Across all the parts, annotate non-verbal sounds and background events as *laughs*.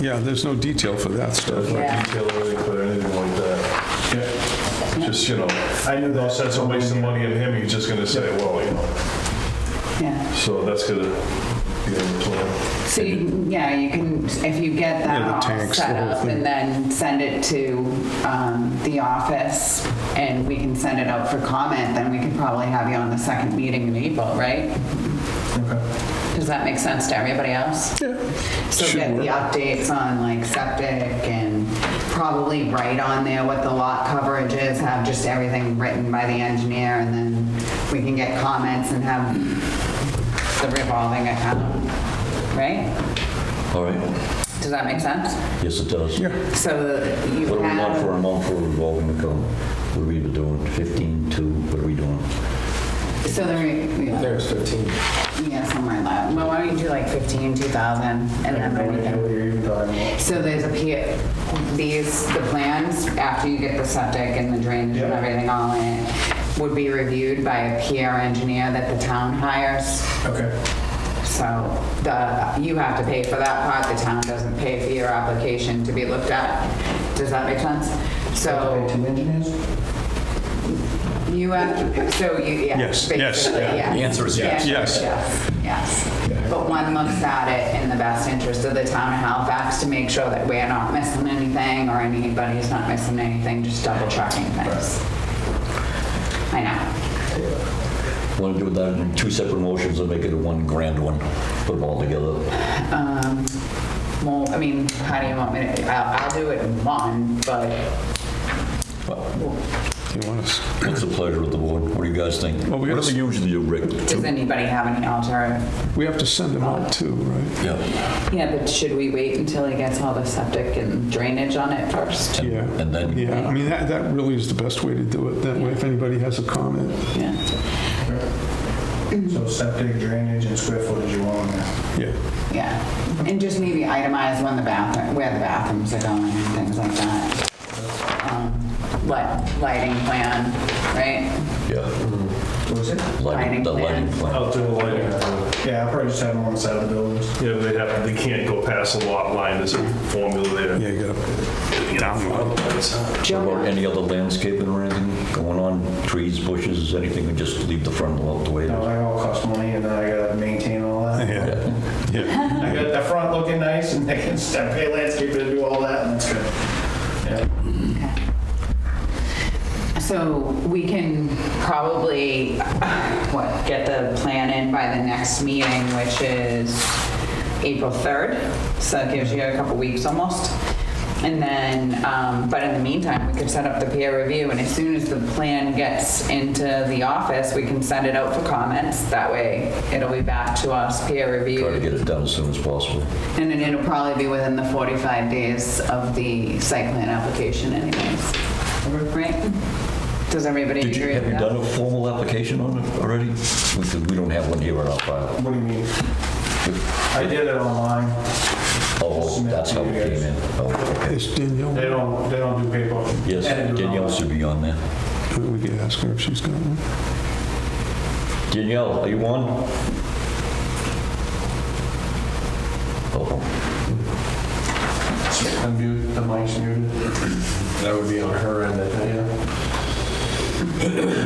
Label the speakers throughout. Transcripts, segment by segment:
Speaker 1: Yeah, there's no detail for that stuff.
Speaker 2: There's no
Speaker 3: Yeah.
Speaker 2: detail really for anything like that. Just, you know,
Speaker 4: I knew
Speaker 2: no
Speaker 4: that.
Speaker 2: sense of wasting money on him, he's just gonna say, well, you know,
Speaker 3: yeah.
Speaker 2: so that's gonna be in the plan.
Speaker 3: So, you- yeah, you can, if you get
Speaker 1: Yeah,
Speaker 3: that
Speaker 1: the
Speaker 3: all
Speaker 1: tanks, the
Speaker 3: set
Speaker 1: whole
Speaker 3: up
Speaker 1: thing.
Speaker 3: and then send it to um, the office and we can send it out for comment, then we can probably have you on the second meeting in April, right? Does that make sense to everybody else?
Speaker 1: Yeah.
Speaker 3: So
Speaker 1: Should
Speaker 3: get the
Speaker 1: work.
Speaker 3: updates on like septic and probably write on there what the lot coverage is, have just everything written by the engineer and then we can get comments and have the revolving account, right?
Speaker 5: All right,
Speaker 3: Does that make sense?
Speaker 5: yes, it does.
Speaker 1: Yeah.
Speaker 3: So that you
Speaker 5: What do we want for
Speaker 3: have,
Speaker 5: a month for revolving account? What are we doing, 15, 2, what are we doing?
Speaker 3: so there, yeah,
Speaker 4: There's 15.
Speaker 3: yeah, somewhere in that. Well, why don't you do like 15, 2,000 and then
Speaker 4: No
Speaker 3: we
Speaker 4: idea
Speaker 3: can.
Speaker 4: what you're even talking about.
Speaker 3: So there's a P, these, the plans, after you get the septic and the drainage and
Speaker 4: Yeah.
Speaker 3: everything all in, would be reviewed by a PR engineer that the town hires.
Speaker 4: Okay.
Speaker 3: So the, you have to pay for that part, the town doesn't pay for your application to be looked at. Does that make sense? So.
Speaker 4: Two engineers?
Speaker 3: You have, so you, yeah.
Speaker 1: Yes, yes,
Speaker 3: basically,
Speaker 1: yeah.
Speaker 3: yes.
Speaker 1: The answer is
Speaker 3: The
Speaker 1: yes.
Speaker 3: answer is
Speaker 1: Yes.
Speaker 3: Yes, yes. But one looks at it in the best interest of the town of Halifax to make sure that we're not missing anything or anybody's not missing anything, just double checking things. I know.
Speaker 5: Want to do that in two separate motions or make it a one grand one? Put them all together?
Speaker 3: Um, Well, I mean, how do you want me to, I'll, I'll do it in one, but
Speaker 1: You want us?
Speaker 5: What's the pleasure of the board? What do you guys think?
Speaker 1: Well, we gotta-
Speaker 5: Whatever you usually do, Rick.
Speaker 3: does anybody have any alter?
Speaker 1: We have to send them out too, right?
Speaker 5: Yeah,
Speaker 3: Yeah, but should we wait until he gets all the septic and drainage on it first?
Speaker 1: Yeah.
Speaker 5: and then-
Speaker 1: Yeah, I mean, that, that really is the best way to do it, that way if anybody has a comment.
Speaker 3: Yeah.
Speaker 4: So septic, drainage, and square footage you want on there.
Speaker 1: Yeah,
Speaker 3: Yeah, and just maybe itemize when the bathroom, where the bathrooms are going and things like that. Um, Light, lighting plan, right?
Speaker 5: yeah.
Speaker 4: What was it?
Speaker 3: Lighting
Speaker 5: Lighting, the lighting
Speaker 3: plan.
Speaker 5: plan.
Speaker 2: Out there, like,
Speaker 4: Yeah, I'll probably just have it on the side of the buildings.
Speaker 2: yeah, uh, they have, they can't go past the lot line, there's a formula there.
Speaker 1: yeah, you gotta,
Speaker 2: You know, it's-
Speaker 5: What about
Speaker 3: Joe,
Speaker 5: any other landscaping or anything going on? Trees, bushes, anything, or just leave the front out the way it
Speaker 4: No,
Speaker 5: is?
Speaker 4: that all costs money, and then I gotta maintain all that. *laughs*
Speaker 1: yeah, yeah.
Speaker 4: I got the front looking nice, and I can step, pay landscaper to do all that, and that's good. Yeah.
Speaker 3: so we can probably, what, get the plan in by the next meeting, which is April 3rd, so that gives you a couple weeks almost. And then, um, but in the meantime, we could set up the peer review, and as soon as the plan gets into the office, we can send it out for comments. That way, it'll be back to us, peer
Speaker 5: Try to
Speaker 3: reviewed,
Speaker 5: get it done as soon as possible.
Speaker 3: and then it'll probably be within the 45 days of the site plan application anyways. Right? Does everybody
Speaker 5: Did you,
Speaker 3: agree
Speaker 5: have
Speaker 3: with
Speaker 5: you done
Speaker 3: that?
Speaker 5: a formal application on it already? Because we don't have one here in our file.
Speaker 4: What do you mean? I did it online.
Speaker 5: Oh, that's how it came in. Oh, okay.
Speaker 1: It's Danielle,
Speaker 4: They don't, they don't do paper.
Speaker 5: Yes,
Speaker 4: And do it
Speaker 5: Danielle should be on there.
Speaker 1: we could ask her if she's got one.
Speaker 5: Danielle, are you on? Oh,
Speaker 4: online. Unmute, the mic's muted.
Speaker 6: That would be on her end, I think.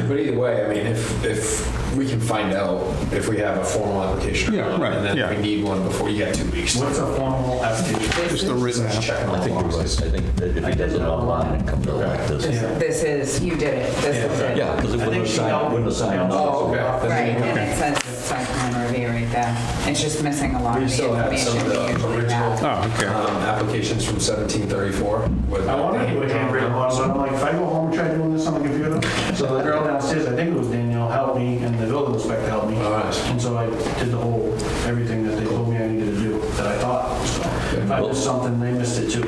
Speaker 6: But either way, I mean, if, if we can find out if we have a formal application or
Speaker 1: Yeah,
Speaker 6: not,
Speaker 1: right,
Speaker 6: and then
Speaker 1: yeah.
Speaker 6: if we need one before, you got two weeks.
Speaker 4: What's a formal application?
Speaker 1: It's the written app.
Speaker 6: Check them
Speaker 5: I think
Speaker 6: all
Speaker 5: you're right. I
Speaker 6: boxes.
Speaker 5: think that if he does it online, it comes out like this.
Speaker 3: This is, you did it, this is it.
Speaker 5: Yeah, because it
Speaker 4: I
Speaker 5: wouldn't
Speaker 4: think she
Speaker 5: assign,
Speaker 4: helped.
Speaker 5: wouldn't assign.
Speaker 6: Oh, okay.
Speaker 3: Right, and it says site plan review right there. It's just missing a lot
Speaker 6: We
Speaker 3: of the
Speaker 6: still have some
Speaker 3: information we
Speaker 6: of the
Speaker 3: usually
Speaker 6: original
Speaker 3: have.
Speaker 1: Oh, okay.
Speaker 6: um, applications from 1734. with-
Speaker 4: I wanted to do a handwritten one, so I'm like, if I go home and try doing this on the computer, so the girl downstairs, I think it was Danielle, helped me, and the building inspector helped me.
Speaker 6: All right.
Speaker 4: And so I did the whole, everything that they told me I needed to do, that I thought, so if I missed something, they missed it too.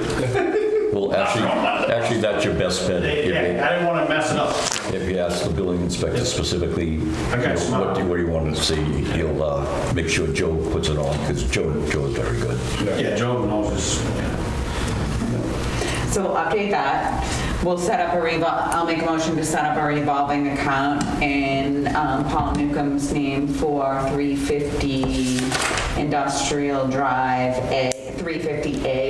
Speaker 5: Well, actually, actually, that's your best bet. if you-
Speaker 4: Yeah, I didn't want to mess it up.
Speaker 5: If you ask the building inspector specifically, you
Speaker 4: Okay,
Speaker 5: know,
Speaker 4: smart.
Speaker 5: what do what do you want to see, he'll uh, make sure Joe puts it on, because Joe, Joe's very good.
Speaker 4: Yeah, Joe knows this. yeah.
Speaker 3: So we'll update that. We'll set up a revol, I'll make a motion to set up a revolving account in um, Paul Newcomb's name for 350 Industrial Drive A, 350A